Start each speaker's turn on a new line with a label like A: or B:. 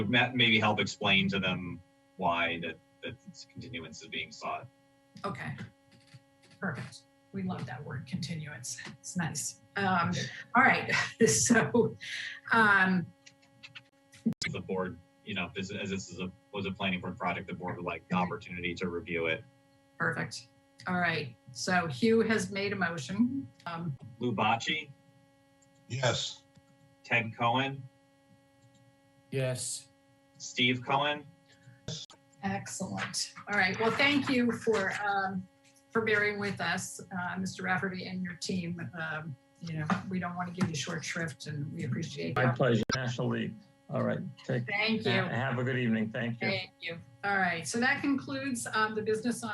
A: ma- maybe help explain to them why that, that this continuance is being sought.
B: Okay. Perfect. We love that word continuance. It's nice. Um, all right. So, um,
A: The board, you know, this, as this is a, was a planning board project, the board would like the opportunity to review it.
B: perfect. All right. So Hugh has made a motion. Um,
A: Lou Bocci,
C: Yes.
A: Ted Cohen,
D: Yes.
A: Steve Cohen.
B: excellent. All right. Well, thank you for, um, for bearing with us, uh, Mr. Rafferty and your team. Um, you know, we don't want to give you short shrift and we appreciate
E: My
B: that.
E: pleasure, National League. All right, take,
B: Thank you.
E: have a good evening. Thank you.
B: Thank you. All right. So that concludes, um, the business on